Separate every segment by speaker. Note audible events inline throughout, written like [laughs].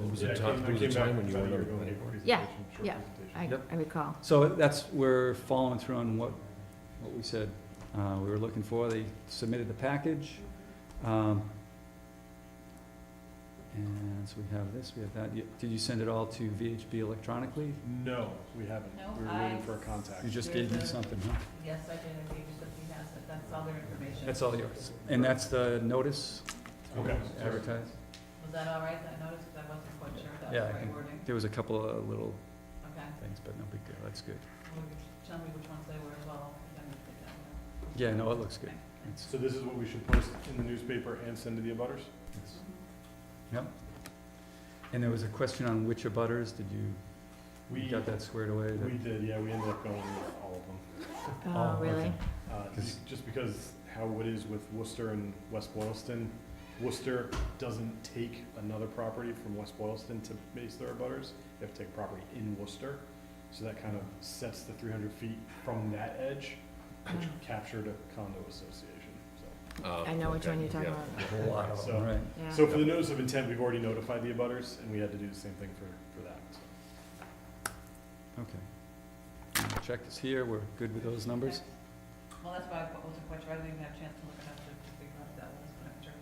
Speaker 1: It was
Speaker 2: Yeah,
Speaker 1: a
Speaker 2: I
Speaker 1: time,
Speaker 2: came- I
Speaker 1: there was a
Speaker 2: came back
Speaker 1: time when you
Speaker 2: about
Speaker 1: were
Speaker 2: a year
Speaker 1: on the
Speaker 2: ago
Speaker 1: planning
Speaker 2: and gave a
Speaker 1: board.
Speaker 3: Yeah,
Speaker 2: presentation, short
Speaker 3: yeah. I,
Speaker 2: presentation.
Speaker 3: I recall.
Speaker 4: So that's, we're following through on what, what we said, uh, we were looking for, they submitted the package. um, And so we have this, we have that, You- did you send it all to VHB electronically?
Speaker 2: No, we haven't.
Speaker 5: No,
Speaker 2: We were waiting
Speaker 5: I-
Speaker 2: for a contact.
Speaker 4: You just gave me something, huh?
Speaker 5: Yes, I did, and we just, we have, it. that's all their information.
Speaker 4: That's all yours, and that's the notice?
Speaker 2: Okay.
Speaker 4: Advertised,
Speaker 5: Was that all right, that notice, 'Cause I wasn't quite sure if that was
Speaker 4: Yeah, I
Speaker 5: the right
Speaker 4: think-
Speaker 5: wording?
Speaker 4: there was a couple of little
Speaker 5: Okay,
Speaker 4: things, but no big deal, that's good.
Speaker 5: Well, you tell me which ones they were as well, if I missed it that way.
Speaker 4: Yeah, no, it looks good.
Speaker 5: Okay.
Speaker 4: It's-
Speaker 2: So this is what we should post in the newspaper and send to the abutters?
Speaker 4: it's- And there was a question on which of butters, did you, you
Speaker 2: We,
Speaker 4: got that squared away? That-
Speaker 2: we did, yeah, we ended up going with all of them.
Speaker 3: Oh, really?
Speaker 4: okay.
Speaker 2: Uh,
Speaker 4: 'Cause-
Speaker 2: Just because how it is with Worcester and West Boylston, Worcester doesn't take another property from West Boylston to base their butters. They have to take property in Worcester, so that kind of sets the three hundred feet from that edge, which
Speaker 5: Mm-hmm.
Speaker 2: captured a condo association, so.
Speaker 3: I know which one you're talking about.
Speaker 4: A whole lot of
Speaker 2: So-
Speaker 4: them, right.
Speaker 3: Yeah.
Speaker 2: So for the notice of intent, we've already notified the abutters, and we had to do the same thing for, for that, so.
Speaker 4: Okay. Check is here, we're good with those numbers?
Speaker 5: Okay. Well, that's why I wasn't quite sure, I didn't even have a chance to look it up to figure out if that was, but I'm sure.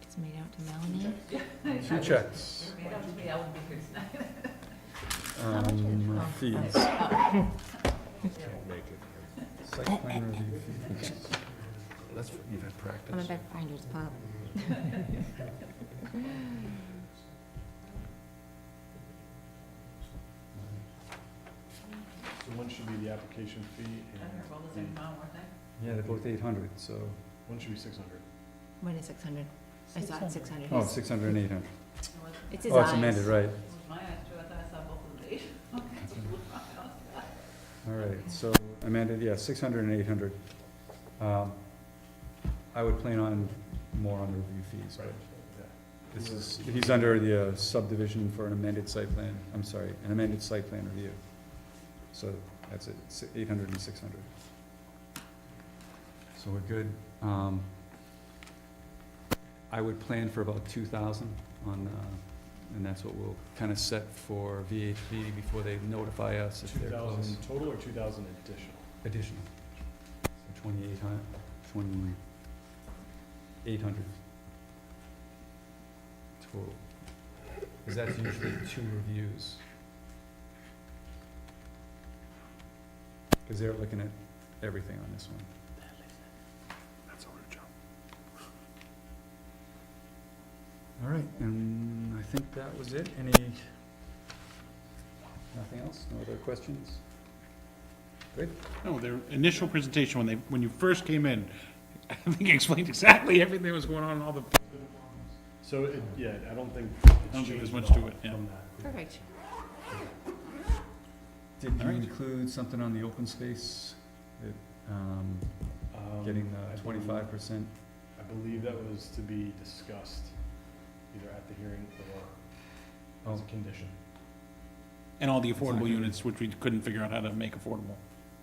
Speaker 3: It's made out to Melanie.
Speaker 4: Two checks.
Speaker 5: If it was me, I wouldn't be here
Speaker 4: [laughs]
Speaker 5: tonight.
Speaker 4: Um,
Speaker 3: Oh.
Speaker 4: fees.
Speaker 5: Yeah.
Speaker 1: Make it.
Speaker 4: Site plan review fees.
Speaker 1: That's, you've had
Speaker 3: I'm a
Speaker 1: practice.
Speaker 3: big finder's pub.
Speaker 2: So one should be the application fee,
Speaker 5: I
Speaker 2: and
Speaker 5: heard all the same amount, weren't they?
Speaker 4: Yeah, they're both eight hundred, so,
Speaker 2: one should be six hundred.
Speaker 3: When is six hundred? I saw it six hundred.
Speaker 4: oh, six hundred and eight hundred.
Speaker 5: It was-
Speaker 3: It's his
Speaker 4: Oh, it's
Speaker 3: eyes.
Speaker 4: amended, right.
Speaker 5: It was my eyes too, I thought I saw both of these.
Speaker 4: All right, so amended, yeah, six hundred and eight hundred. Um, I would plan on more on the review fees, but this is, he's under the uh, subdivision for an amended site plan, I'm sorry, an amended site plan review. So that's it, si- 800 and 600. So we're good. Um, I would plan for about two thousand on, uh, and that's what we'll kind of set for VHB before they notify us if
Speaker 2: Two
Speaker 4: they're close.
Speaker 2: thousand total or two thousand additional?
Speaker 4: Additional. So twenty-eight hun- twenty-eight hundred. Total. Cause that's usually two reviews. Cause they're looking at everything on this one.
Speaker 2: That's a rude job.
Speaker 4: All right, and I think that was it. Any, nothing else? No other questions?
Speaker 6: No, their initial presentation, when they, when you first came in, [laughs] I think you explained [laughs] exactly everything that was going on, all the,
Speaker 2: So, it- yeah, I don't think.
Speaker 6: I don't think there's much to it, yeah.
Speaker 3: Perfect.
Speaker 4: Did you
Speaker 6: All right.
Speaker 4: include something on the open space, that, um, getting the twenty-five percent
Speaker 2: I believe that was to be discussed either at the hearing or as a
Speaker 4: Oh.
Speaker 2: condition.
Speaker 6: and all the
Speaker 4: It's not gonna
Speaker 6: affordable
Speaker 4: be-
Speaker 6: units, which we couldn't figure out how to make affordable.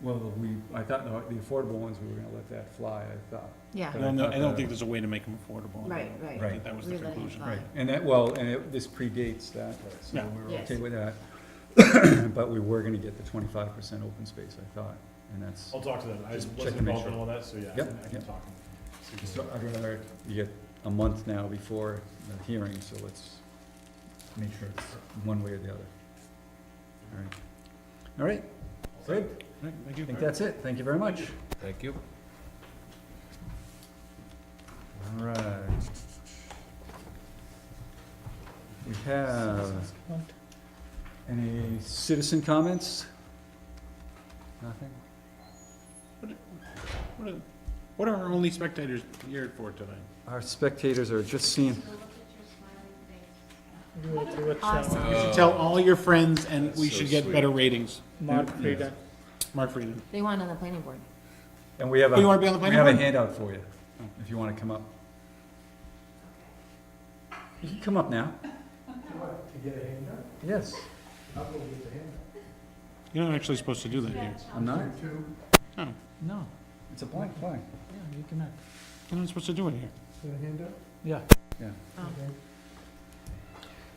Speaker 4: Well, we, I thought no, the affordable ones, we were gonna let that fly, I thought.
Speaker 3: Yeah,
Speaker 6: I
Speaker 4: But I
Speaker 6: don't know, I
Speaker 4: thought
Speaker 6: don't
Speaker 4: the-
Speaker 6: think there's a way to make them affordable.
Speaker 3: right,
Speaker 6: I
Speaker 3: right.
Speaker 4: Right.
Speaker 6: think that was the
Speaker 3: We let it
Speaker 6: conclusion.
Speaker 3: fly.
Speaker 4: And that, well, and it, this predates that, so
Speaker 6: Yeah.
Speaker 4: we were
Speaker 3: Yes.
Speaker 4: okay with that. [clears throat] But we were gonna get the twenty-five percent open space, I thought, and that's,
Speaker 2: I'll talk to them. I
Speaker 4: Just check
Speaker 2: wasn't
Speaker 4: to make
Speaker 2: involved in
Speaker 4: sure.
Speaker 2: all that, so yeah, I
Speaker 4: Yep,
Speaker 2: can- I can
Speaker 4: yep.
Speaker 2: talk. and see what-
Speaker 4: so I'd rather, you get a month now before the hearing, so let's make sure it's one way or the other. All right. All right, good,
Speaker 6: Right, thank you.
Speaker 4: I think that's it, thank you very much.
Speaker 1: Thank you.
Speaker 4: All right. We have, any citizen comments? Nothing?
Speaker 6: What are- What are our only spectators here for tonight?
Speaker 4: Our spectators are just seeing,
Speaker 3: Awesome.
Speaker 6: You should tell all your friends, and we
Speaker 1: That's
Speaker 6: should
Speaker 1: so
Speaker 6: get
Speaker 1: sweet.
Speaker 6: better ratings.
Speaker 4: Mark
Speaker 6: Frieden. Mark Frieden.
Speaker 3: They want on the planning board.
Speaker 4: and we have a,
Speaker 6: Oh, you wanna be on the
Speaker 4: we have a
Speaker 6: planning board?
Speaker 4: handout for you, if you wanna come up. You can come up now. To get a handout? Yes,
Speaker 6: You're not actually supposed to do that here.
Speaker 4: I'm not,
Speaker 6: No,
Speaker 7: No,
Speaker 4: it's a blank blank,
Speaker 7: yeah, you cannot.
Speaker 6: you're not supposed to do it here.
Speaker 7: Yeah.
Speaker 4: yeah.
Speaker 3: Oh.